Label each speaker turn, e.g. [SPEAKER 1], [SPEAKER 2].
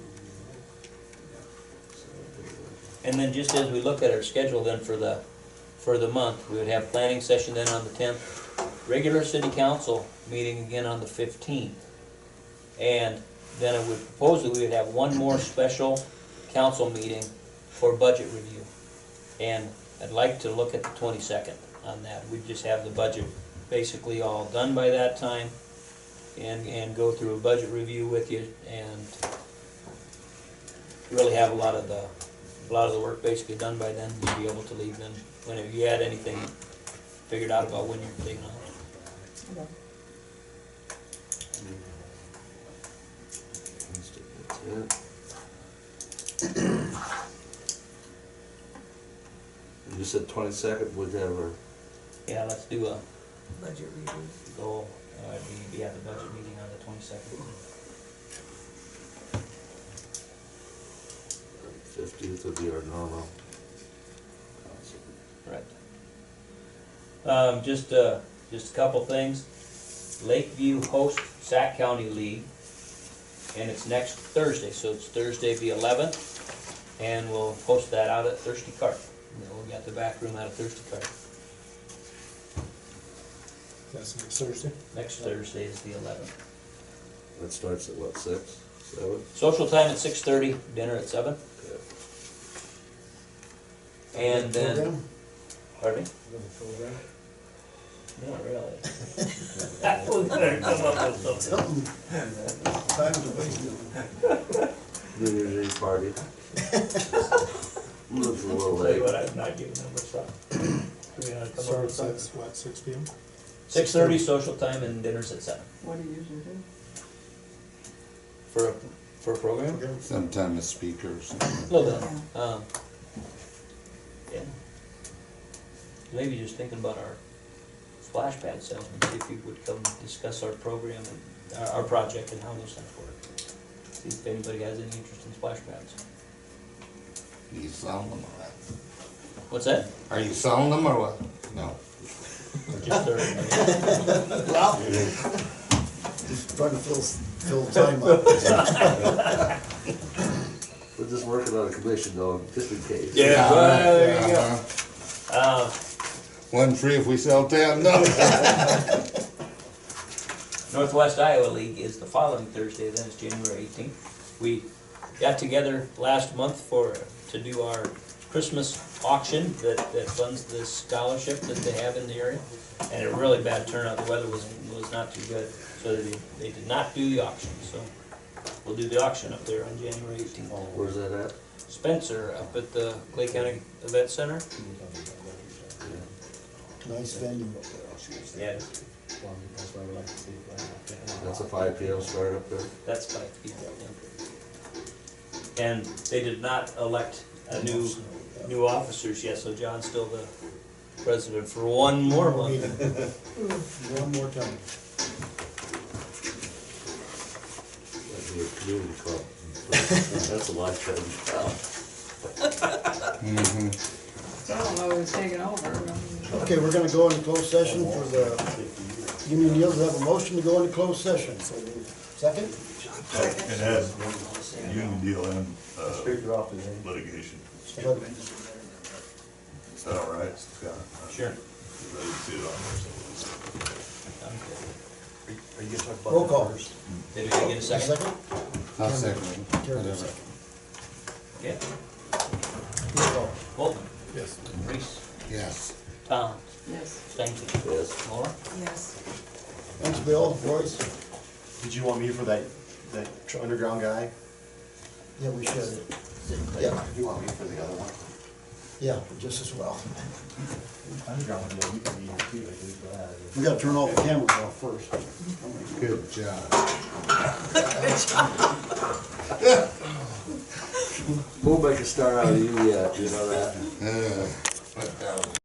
[SPEAKER 1] And then just as we look at our schedule then for the, for the month, we would have planning session then on the tenth, regular city council meeting again on the fifteenth. And then I would propose that we would have one more special council meeting for budget review. And I'd like to look at the twenty-second on that. We'd just have the budget basically all done by that time and, and go through a budget review with you and really have a lot of the, a lot of the work basically done by then. You'd be able to leave then whenever you had anything figured out about when you're taking off.
[SPEAKER 2] You said twenty-second, would have our
[SPEAKER 1] Yeah, let's do a
[SPEAKER 3] Budget review.
[SPEAKER 1] goal, uh, we, we have the budget meeting on the twenty-second.
[SPEAKER 2] fifteenth would be our normal.
[SPEAKER 1] Right. Um, just, uh, just a couple things. Lakeview hosts Sac County League, and it's next Thursday, so it's Thursday the eleventh, and we'll post that out at Thirsty Cart. You know, we got the back room out of Thirsty Cart.
[SPEAKER 4] That's next Thursday.
[SPEAKER 1] Next Thursday is the eleventh.
[SPEAKER 2] That starts at what, six, seven?
[SPEAKER 1] Social time at six thirty, dinner at seven,
[SPEAKER 2] Yeah.
[SPEAKER 1] and then, pardon me?
[SPEAKER 4] Another program.
[SPEAKER 1] Not really. I was gonna come up with something.
[SPEAKER 5] Time to wait.
[SPEAKER 2] New Year's Eve party. Looks a little
[SPEAKER 1] Tell you
[SPEAKER 2] late.
[SPEAKER 1] what, I'm not giving them much thought. Do we wanna come up with
[SPEAKER 4] Starts
[SPEAKER 1] something?
[SPEAKER 4] at, what, six P M?
[SPEAKER 1] Six thirty social time and dinner's at seven.
[SPEAKER 3] What do you usually do?
[SPEAKER 1] For, a for a program?
[SPEAKER 5] Sometime a speaker or something.
[SPEAKER 1] A little bit, um, yeah. Maybe just thinking about our splash pad salesman, see if you would come discuss our program and, our, our project and how those things work. See if anybody has any interest in splash pads.
[SPEAKER 5] Are you selling them or
[SPEAKER 1] What's that?
[SPEAKER 5] what? Are you selling them or what? No.
[SPEAKER 1] Just thirty.
[SPEAKER 6] Well, just trying to fill, fill time up.
[SPEAKER 2] We're just working on a commission though, just in case.
[SPEAKER 1] Yeah, well, there you go.
[SPEAKER 5] Uh-huh.
[SPEAKER 1] Um,
[SPEAKER 5] One free if we sell ten, no.
[SPEAKER 1] Northwest Iowa League is the following Thursday, then it's January eighteenth. We got together last month for, to do our Christmas auction that, that funds this scholarship that they have in the area. And a really bad turnout, the weather was, was not too good, so they, they did not do the auction, so we'll do the auction up there on January eighteenth.
[SPEAKER 2] Where's that at?
[SPEAKER 1] Spencer up at the Clay County Event Center.
[SPEAKER 6] Nice venue.
[SPEAKER 1] Yeah.
[SPEAKER 2] That's a five P M start up there.
[SPEAKER 1] That's by people. yeah. And they did not elect a new, new officers yet, so John's still the president for one more month.
[SPEAKER 6] One more time.
[SPEAKER 2] That'd be a community club. That's a life change.
[SPEAKER 3] So I don't know who's taking over. I mean,
[SPEAKER 6] Okay, we're gonna go into closed session for the union deals, We have a motion to go into closed session. Second?
[SPEAKER 7] It has union deal and uh,
[SPEAKER 2] off the
[SPEAKER 7] litigation.
[SPEAKER 6] Second.
[SPEAKER 7] Is that all right, Scott?
[SPEAKER 1] Sure.
[SPEAKER 7] I didn't see it on there, so.
[SPEAKER 6] Roll call.
[SPEAKER 1] Did we get a second?
[SPEAKER 5] I'll second it,
[SPEAKER 6] Karen,
[SPEAKER 5] whatever.
[SPEAKER 1] Yeah,
[SPEAKER 6] second. Roll call.
[SPEAKER 1] Bolton,
[SPEAKER 4] Yes.
[SPEAKER 1] Reese,
[SPEAKER 5] Yes.
[SPEAKER 1] Tom,
[SPEAKER 3] Yes.
[SPEAKER 1] Stankin,
[SPEAKER 2] Yes.
[SPEAKER 1] Laura.
[SPEAKER 3] Yes.
[SPEAKER 6] Thanks, Bill, Royce.
[SPEAKER 8] Did you want me for that, that tr- underground guy?
[SPEAKER 6] Yeah, we should. Yeah,
[SPEAKER 8] You want me for the other one?
[SPEAKER 6] yeah, just as well.
[SPEAKER 8] Underground, yeah, you can be here too, I think, for that.
[SPEAKER 6] We gotta turn off the cameras off first.
[SPEAKER 5] Good job.
[SPEAKER 2] We'll make a star out of you yet, you know that?
[SPEAKER 5] Uh, Put down